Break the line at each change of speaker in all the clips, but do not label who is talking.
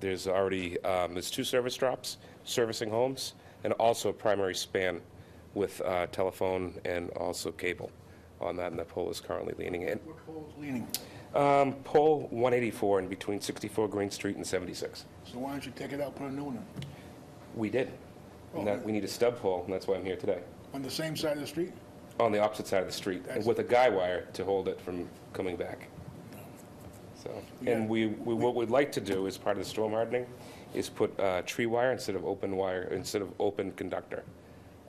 There's already, um, there's two service drops servicing homes and also a primary span with uh, telephone and also cable on that, and the pole is currently leaning in.
What pole's leaning?
Um, Pole 184 in between 64 Green Street and 76.
So why don't you take it out, put a new one in?
We did. And that, we need a stub pole, and that's why I'm here today,
On the same side of the street?
on the opposite side of the street, and with a guy wire to hold it from coming back. So, and we, we, what we'd like to do as part of the storm hardening is put uh, tree wire instead of open wire, instead of open conductor,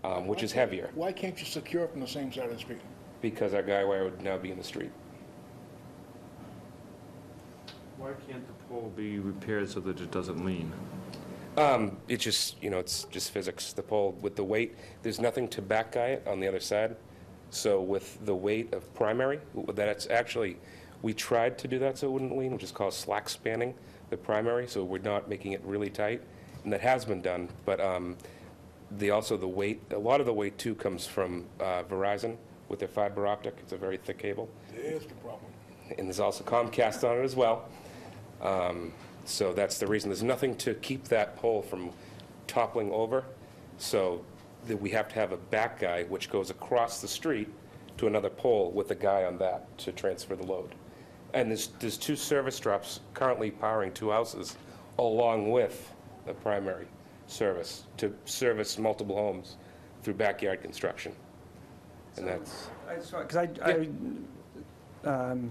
um, which is heavier,
Why can't you secure it from the same side of the street?
because our guy wire would now be in the street.
Why can't the pole be repaired so that it doesn't lean?
Um, It's just, you know, it's just physics. The pole, with the weight, there's nothing to back guy it on the other side. So with the weight of primary, that's actually, we tried to do that so it wouldn't lean, which is called slack spanning the primary, so we're not making it really tight. And that has been done, but um, the, also the weight, a lot of the weight too comes from uh, Verizon with their fiber optic. It's a very thick cable.
There's the problem.
And there's also Comcast on it as well. Um, So that's the reason. There's nothing to keep that pole from toppling over. So that we have to have a back guy, which goes across the street to another pole with a guy on that to transfer the load. And there's, there's two service drops currently powering two houses along with the primary service to service multiple homes through backyard construction. And that's.
Because I, I, um,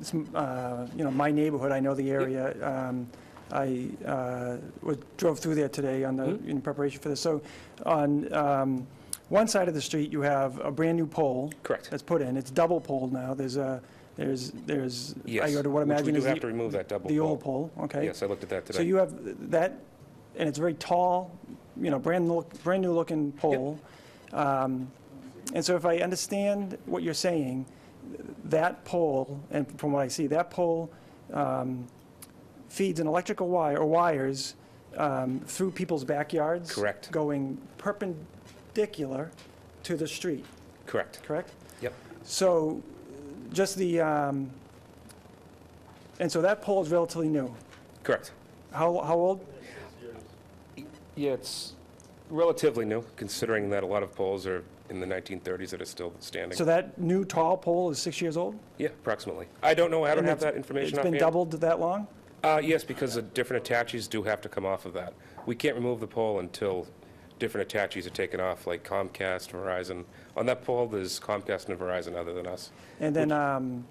it's, uh, you know, my neighborhood, I know the area. Um, I uh, was- drove through there today on
Mm-hmm.
the, in preparation for this. So on um, one side of the street, you have a brand-new pole.
Correct.
That's put in. It's double pole now. There's a, there's, there's.
Yes,
I would
which
what
we
imagine
do
is
have
the-
to remove that double
The old pole, okay.
Yes, I looked at that today.
So you have that, and it's very tall, you know, brand look, brand new looking pole. Um, And so if I understand what you're saying, that pole, and from what I see, that pole um, feeds an electrical wire, or wires, um, through people's backyards.
Correct.
Going perpendicular to the street,
Correct.
correct?
Yep.
So just the, um, and so that pole is relatively new.
Correct.
How, how old?
Yeah, it's relatively new, considering that a lot of poles are in the 1930s that are still standing.
So that new tall pole is six years old?
Yeah, approximately. I don't know, I don't
And
have
it's-
that information
It's been
offhand.
doubled that long?
Uh, yes, because the different attaches do have to come off of that. We can't remove the pole until different attaches are taken off, like Comcast, Verizon. On that pole, there's Comcast and Verizon other than us.
And then, um,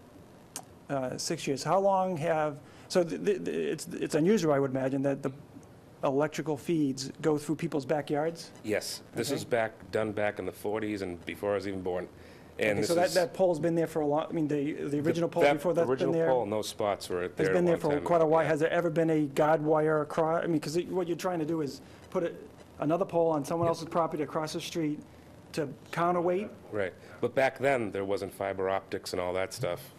uh, six years, how long have, so th- th- th- it's it's unusual, I would imagine, that the electrical feeds go through people's backyards?
Yes, this is back, done back in the 40s and before I was even born. And
Okay,
this
So that,
is-
that pole's been there for a long, I mean, the, the
the-
original pole
that
before that's been
Original pole
there?
and those spots were there
Has
at
been there
one
for
time.
quite a while.
Yeah.
Has there ever been a guide wire across, I mean, because what you're trying to do is put a- another pole on someone else's property across the street to counterweight?
Right, but back then, there wasn't fiber optics and all that stuff,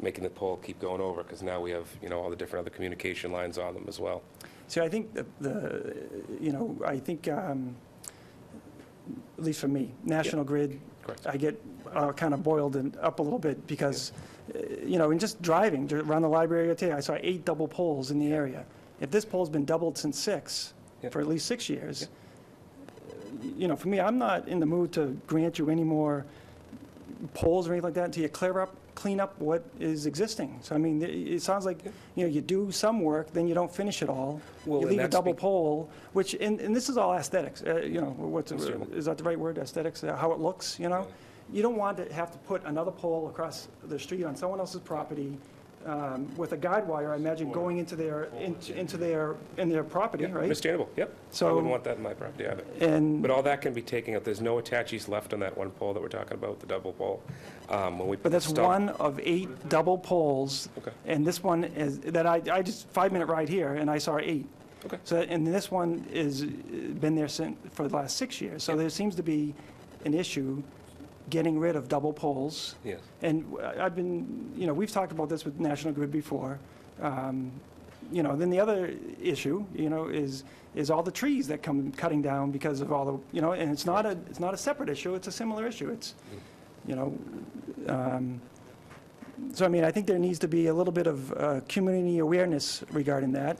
making the pole keep going over, because now we have, you know, all the different other communication lines on them as well.
See, I think the- the, you know, I think, um, at least for me, National Grid,
Correct.
I get uh, kind of boiled and up a little bit because, uh, you know, in just driving ju- around the library area today, I saw eight double poles in the area. If this pole's been doubled since six,
Yeah.
for at least six years, uh, you know, for me, I'm not in the mood to grant you any more polls or anything like that until you clear up, clean up what is existing. So I mean, it, it sounds like, you know, you do some work, then you don't finish it all.
Well,
You
and
leave a
that's
double
be-
pole, which, and, and this is all aesthetics, uh, you know, what's,
Understandable.
is that the right word, aesthetics, uh, how it looks, you know? You don't want to have to put another pole across the street on someone else's property um, with a guide wire, I imagine, going into their, into into their, in their property, right?
Understandable, yep. I
So-
wouldn't want that in my property either.
And
But all that can be taken out, there's no attaches left on that one pole that we're talking about, the double pole. Um, When we
But
put the
that's
stub-
one of eight double poles.
Okay.
And this one is, that I, I just, five-minute ride here, and I saw eight.
Okay.
So, and this one is, uh, been there since, for the last six years. So there seems to be an issue getting rid of double poles.
Yes.
And w- I've been, you know, we've talked about this with National Grid before. Um, You know, then the other issue, you know, is, is all the trees that come cutting down because of all the, you know, and it's not a, it's not a separate issue, it's a similar issue. It's, you know, um, so I mean, I think there needs to be a little bit of uh, community awareness regarding that.